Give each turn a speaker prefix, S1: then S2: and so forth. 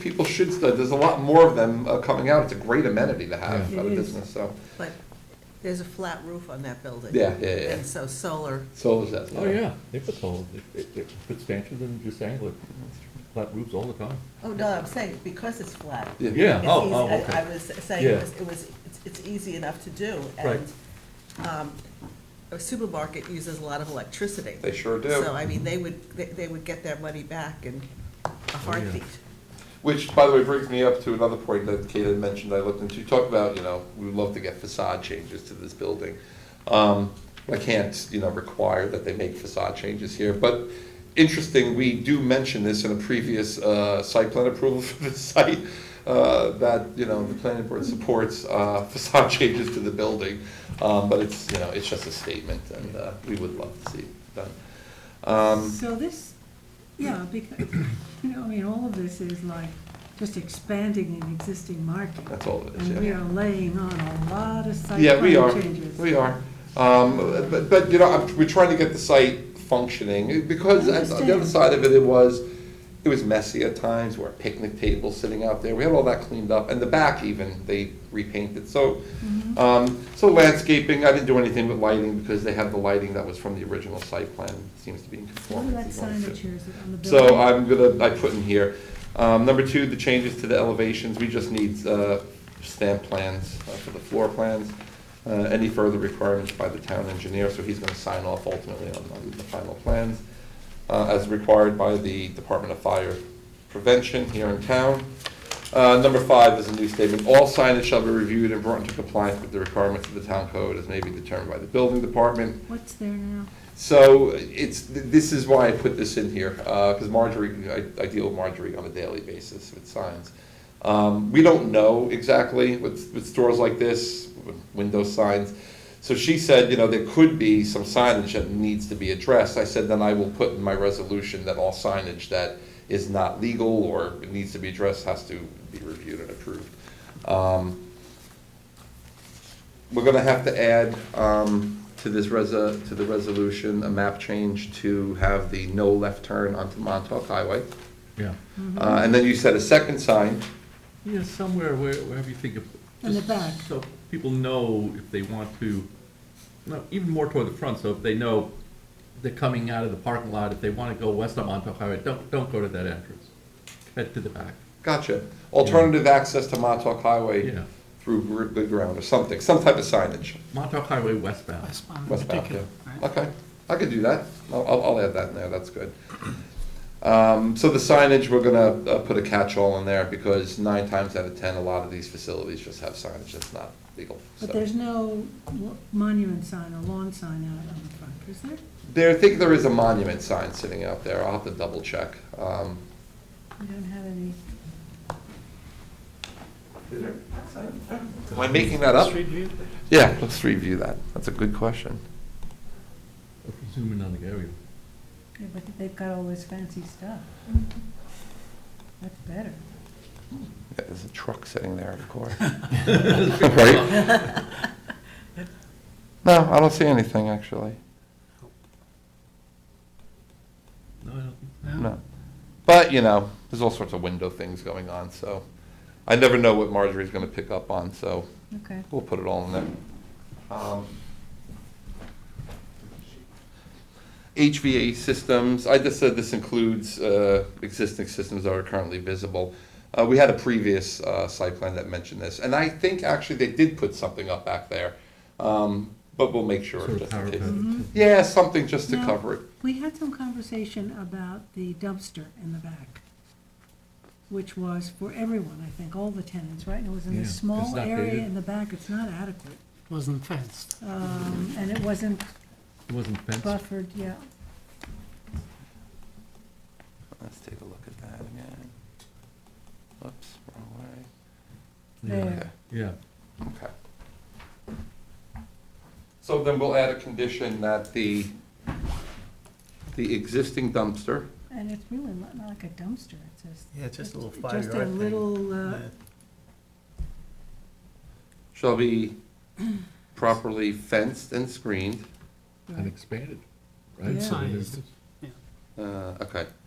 S1: people should, stu- there's a lot more of them uh, coming out. It's a great amenity to have
S2: Yeah.
S1: at a
S2: It is.
S1: business, so.
S3: But there's a flat roof on that building.
S1: Yeah, yeah, yeah.
S3: And so solar,
S1: So is that.
S2: Oh, yeah, they put solar, they, they put stanchions and just angle it, flat roofs all the time.
S3: oh, no, I'm saying because it's flat.
S1: Yeah.
S2: Yeah,
S3: It's
S2: oh,
S3: easy-
S2: oh,
S3: I- I
S2: okay.
S3: was saying, it
S2: Yeah.
S3: was- it was, it's- it's easy enough to do.
S2: Right.
S3: And um, a supermarket uses a lot of electricity.
S1: They sure do.
S3: So, I mean, they would, they- they would get their money back in a heartbeat.
S1: Which, by the way, brings me up to another point that Kate had mentioned I looked into. You talk about, you know, we would love to get facade changes to this building. Um, I can't, you know, require that they make facade changes here, but interesting, we do mention this in a previous uh, site plan approval for the site, uh, that, you know, the planning board supports uh, facade changes to the building. Um, But it's, you know, it's just a statement, and uh, we would love to see it done. Um,
S4: So this, yeah, because, you know, I mean, all of this is like just expanding an existing market.
S1: That's all it is, yeah.
S4: And we are laying on a lot of site
S1: Yeah, we are,
S4: plan changes.
S1: we are. Um, But, but, you know, I'm- we're trying to get the site functioning, because at-
S4: I
S1: on the other
S4: understand.
S1: side of it, it was, it was messy at times, where picnic tables sitting out there, we had all that cleaned up, and the back even, they repainted, so,
S4: Mm-hmm.
S1: um, so landscaping, I didn't do anything with lighting, because they have the lighting that was from the original site plan, seems to be in
S4: What
S1: conformity.
S4: are that
S1: as long as it-
S4: signage here, is it on the building?
S1: so I'm gonna, I put in here, um, number two, the changes to the elevations, we just need, uh, stamp plans uh, for the floor plans. Uh, any further requirements by the town engineer, so he's gonna sign off ultimately on, on the final plans, uh, as required by the Department of Fire Prevention here in town. Uh, number five is a new statement, all signage shall be reviewed and brought into compliance with the requirements of the town code as may be determined by the building department.
S4: What's there now?
S1: So it's, th- this is why I put this in here, because Marjorie, I I deal with Marjorie on a daily basis with signs. Um, We don't know exactly with, with stores like this, with window signs. So she said, you know, there could be some signage that needs to be addressed. I said, then I will put in my resolution that all signage that is not legal or needs to be addressed has to be reviewed and approved. Um, we're gonna have to add, um, to this resa, to the resolution, a map change to have the no left turn onto Montauk Highway.
S2: Yeah,
S1: Uh, and then you said a second sign,
S2: yeah, somewhere where, wherever you think of.
S4: In the
S2: just
S4: back.
S2: So people know if they want to, no, even more toward the front, so if they know they're coming out of the parking lot, if they wanna go west on Montauk Highway, don't, don't go to that entrance. Head to the back.
S1: gotcha, alternative access to Montauk Highway
S2: Yeah.
S1: through gr- good ground or something, some type of signage,
S2: Montauk Highway westbound.
S5: Westbound
S4: Mm-hmm.
S5: in
S1: westbound, yeah.
S5: particular. right?
S1: Okay, I could do that, I'll, I'll I'll add that in there, that's good. Um, so the signage, we're gonna, uh, put a catch-all in there, because nine times out of ten, a lot of these facilities just have signage that's not legal, so.
S4: But there's no lo- monument sign or lawn sign out on the front, is there?
S1: There, I think there is a monument sign sitting out there, I'll have to double check. Um,
S4: We don't have any.
S1: Am I making that up? Yeah, let's review that, that's a good question.
S2: If you Zoom in on the area.
S4: Yeah, but they've got all this fancy stuff. Mm-hmm. That's better.
S1: Yeah, There's a truck sitting there, of course. Right? No, I don't see anything, actually,
S2: No, I don't think
S1: no. But, you know, there's all sorts of window things going on, so I never know what Marjorie's gonna pick up on, so
S4: Okay.
S1: We'll put it all in there. Um, HVA systems, I just said this includes uh, existing systems that are currently visible. Uh, We had a previous uh, site plan that mentioned this, and I think actually they did put something up back there, um, but we'll make sure.
S2: Sort of
S1: just in
S2: power
S1: case.
S2: plant.
S4: Mm-hmm.
S1: Yeah, something just to
S4: Now,
S1: cover it.
S4: We had some conversation about the dumpster in the back, which was for everyone, I think, all the tenants, right? And it was in
S2: Yeah,
S4: a
S2: it's
S4: small
S2: not
S4: area
S2: gated.
S4: in the back, it's not adequate.
S5: Wasn't fenced.
S4: Um, And it wasn't
S2: It wasn't fenced.
S4: buffered, yeah.
S1: Let's take a look at that again. Oops, wrong way.
S2: Yeah,
S4: There.
S2: yeah.
S1: Okay. So then we'll add a condition that the, the existing dumpster,
S4: And it's really not not like a dumpster, it's just.
S5: Yeah, just a little five-yard
S4: Just a
S5: thing.
S4: little, uh,
S5: Yeah.
S1: shall be properly fenced and screened.
S2: And
S4: right.
S2: expanded,
S4: Yeah.
S2: right? So it
S5: Signed.
S2: is-
S1: Uh, okay,